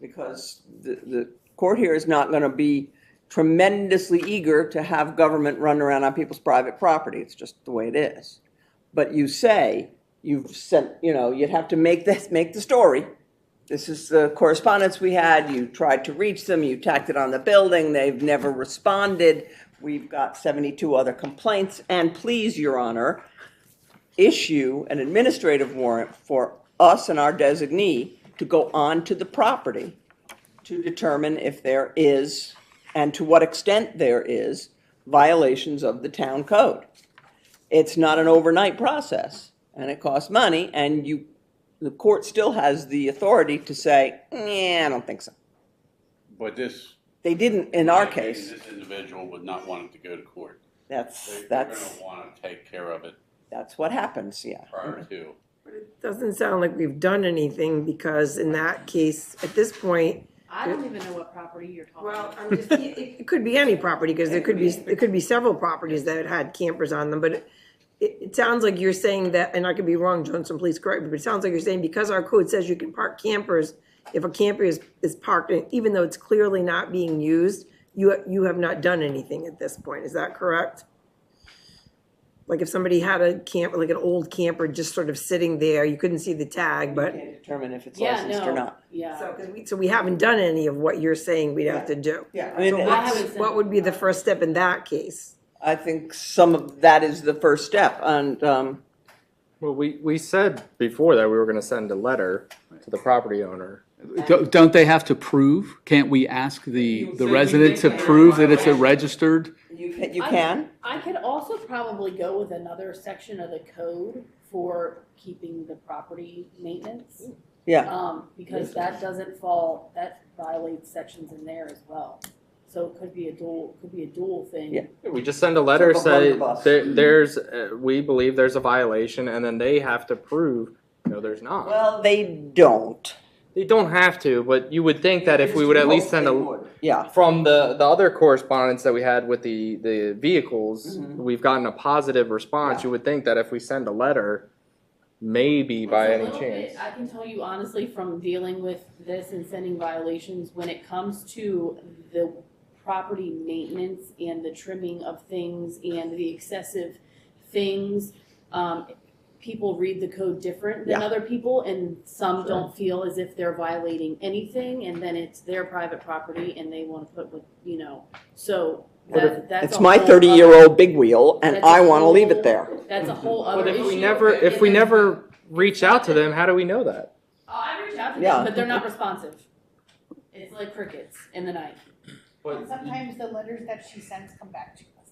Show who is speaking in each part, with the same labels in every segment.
Speaker 1: because the, the court here is not gonna be tremendously eager to have government run around on people's private property. It's just the way it is. But you say, you've sent, you know, you'd have to make this, make the story. This is the correspondence we had, you tried to reach them, you tacked it on the building, they've never responded. We've got seventy-two other complaints, and please, Your Honor, issue an administrative warrant for us and our designee to go on to the property to determine if there is, and to what extent there is, violations of the town code. It's not an overnight process, and it costs money, and you, the court still has the authority to say, yeah, I don't think so.
Speaker 2: But this.
Speaker 1: They didn't in our case.
Speaker 2: This individual would not want it to go to court. They-
Speaker 1: That's,
Speaker 2: They're
Speaker 1: that's,
Speaker 2: gonna wanna take care of it
Speaker 1: that's what happens, yeah.
Speaker 2: prior to.
Speaker 3: Doesn't sound like we've done anything because in that case, at this point,
Speaker 4: I don't even know what property you're talking
Speaker 3: well,
Speaker 4: about.
Speaker 3: I'm just, it, it could be any property because there could be, it could be several properties that had campers on them, but it, it sounds like you're saying that, and I could be wrong, Johnson, please correct me, but it sounds like you're saying because our code says you can park campers, if a camper is, is parked, in- even though it's clearly not being used, you, you have not done anything at this point. Is that correct? Like if somebody had a camp, like an old camper just sort of sitting there, you couldn't see the tag, but.
Speaker 1: Can't determine if it's
Speaker 4: Yeah,
Speaker 1: licensed or
Speaker 4: no,
Speaker 1: not.
Speaker 4: yeah.
Speaker 3: So, 'cause we- so we haven't done any of what you're saying we'd have to do.
Speaker 1: Yeah, I mean,
Speaker 3: So
Speaker 1: it's-
Speaker 3: what's- What would be the first step in that case?
Speaker 1: I think some of that is the first step, and, um,
Speaker 5: Well, we, we said before that we were gonna send a letter to the property owner.
Speaker 6: Don't don't they have to prove? Can't we ask the,
Speaker 2: say
Speaker 6: the resident to
Speaker 2: they can.
Speaker 6: prove that it's a registered?
Speaker 1: you can, you
Speaker 4: I-
Speaker 1: can.
Speaker 4: I could also probably go with another section of the code for keeping the property maintenance.
Speaker 1: Yeah.
Speaker 4: Um, because that doesn't fall, that violates sections in there as well. So it could be a dual, could be a dual thing.
Speaker 1: Yeah.
Speaker 5: We just send a letter,
Speaker 1: Jump behind the
Speaker 5: say,
Speaker 1: bus.
Speaker 5: there, there's, uh, we believe there's a violation, and then they have to prove, no, there's not.
Speaker 1: Well, they don't.
Speaker 5: They don't have to, but you would think that if we would at least send a,
Speaker 1: Yeah,
Speaker 5: from the, the other correspondence that we had with the, the vehicles,
Speaker 1: Mhm.
Speaker 5: we've gotten a positive response,
Speaker 1: Yeah.
Speaker 5: you would think that if we send a letter, maybe
Speaker 4: It's
Speaker 5: by
Speaker 4: a
Speaker 5: any
Speaker 4: little bit-
Speaker 5: chance.
Speaker 4: I can tell you honestly from dealing with this and sending violations, when it comes to the property maintenance and the trimming of things and the excessive things, um, people read the code different than
Speaker 1: Yeah.
Speaker 4: other people and some don't feel as if they're violating anything and then it's their private property and they wanna put what, you know, so
Speaker 5: What
Speaker 4: that, that's
Speaker 1: it's
Speaker 4: a
Speaker 1: my
Speaker 4: whole other-
Speaker 1: thirty-year-old big wheel, and
Speaker 4: That's a
Speaker 1: I want to leave
Speaker 4: whole
Speaker 1: it there.
Speaker 4: That's a whole other
Speaker 5: But
Speaker 4: issue.
Speaker 5: if we never, if we
Speaker 4: And then-
Speaker 5: never reach out to them, how do we know that?
Speaker 4: Oh, I reach out to
Speaker 1: Yeah.
Speaker 4: them, but they're not responsive. It's like crickets in the night.
Speaker 7: Sometimes the letters that she sends come back to us.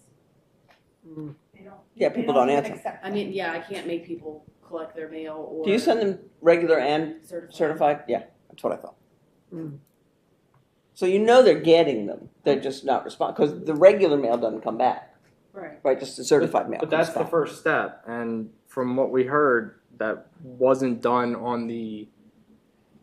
Speaker 3: Mm.
Speaker 7: They don't-
Speaker 1: Yeah,
Speaker 7: they
Speaker 1: people don't
Speaker 7: even
Speaker 1: answer.
Speaker 7: accept
Speaker 4: I
Speaker 7: them.
Speaker 4: mean, yeah, I can't make people collect their mail or.
Speaker 1: Do you send them regular and
Speaker 4: certified?
Speaker 1: certified? Yeah, that's what I thought.
Speaker 4: Hmm.
Speaker 3: Mm.
Speaker 1: So you know they're getting them, they're just not responding, because the regular mail doesn't come back,
Speaker 4: Right.
Speaker 1: right, just the certified mail
Speaker 5: But
Speaker 1: comes
Speaker 5: that's the
Speaker 1: back.
Speaker 5: first step, and from what we heard, that wasn't done on the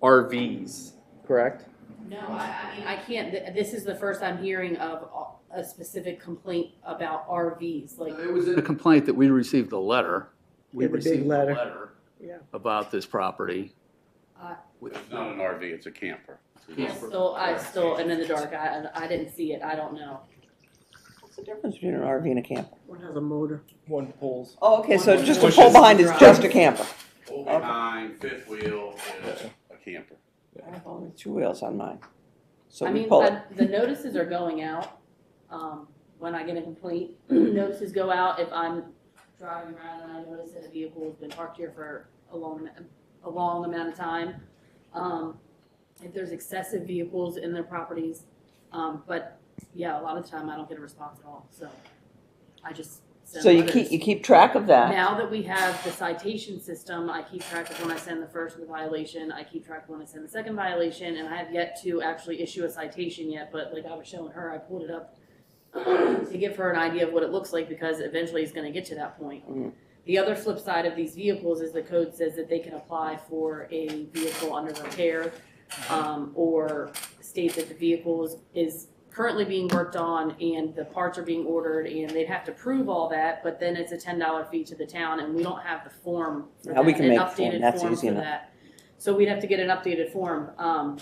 Speaker 5: RVs, correct?
Speaker 4: No, I, I mean, I can't, th- this is the first I'm hearing of a- a specific complaint about RVs, like.
Speaker 6: It was a complaint that we received a letter. We
Speaker 3: Yeah, the big
Speaker 6: received a
Speaker 3: letter. Yeah.
Speaker 6: About this property.
Speaker 4: Uh,
Speaker 6: With-
Speaker 2: It's not an RV, it's a camper.
Speaker 4: I still, I still, and in the dark, I, I didn't see it, I don't know.
Speaker 1: What's the difference between an RV and a camper?
Speaker 3: One has a motor.
Speaker 5: One pulls.
Speaker 1: Oh, okay, so
Speaker 4: One
Speaker 1: just a
Speaker 4: pushes
Speaker 1: pull behind
Speaker 4: and
Speaker 1: is
Speaker 4: drives.
Speaker 1: just a camper.
Speaker 2: Full behind, fifth wheel is a camper.
Speaker 1: I have only two wheels on mine, so
Speaker 4: I
Speaker 1: we
Speaker 4: mean,
Speaker 1: pull it.
Speaker 4: I- the notices are going out, um, when I get a complaint, notices go out if I'm driving around and I notice that a vehicle has been parked here for a long, a long amount of time. Um, if there's excessive vehicles in their properties, um, but yeah, a lot of the time I don't get a response at all, so I just send
Speaker 1: So you
Speaker 4: letters.
Speaker 1: keep, you keep track of that,
Speaker 4: Now that we have the citation system, I keep track of when I send the first violation, I keep track of when I send the second violation, and I have yet to actually issue a citation yet, but like I was showing her, I pulled it up to give her an idea of what it looks like, because eventually it's gonna get to that point.
Speaker 1: Mhm.
Speaker 4: The other flip side of these vehicles is the code says that they can apply for a vehicle under repair, um, or state that the vehicle is, is currently being worked on and the parts are being ordered and they'd have to prove all that, but then it's a ten dollar fee to the town and we don't have the form for
Speaker 1: Yeah, we
Speaker 4: that,
Speaker 1: can
Speaker 4: an
Speaker 1: make the form.
Speaker 4: updated
Speaker 1: That's
Speaker 4: form
Speaker 1: easy
Speaker 4: for
Speaker 1: enough.
Speaker 4: that. So we'd have to get an updated form, um,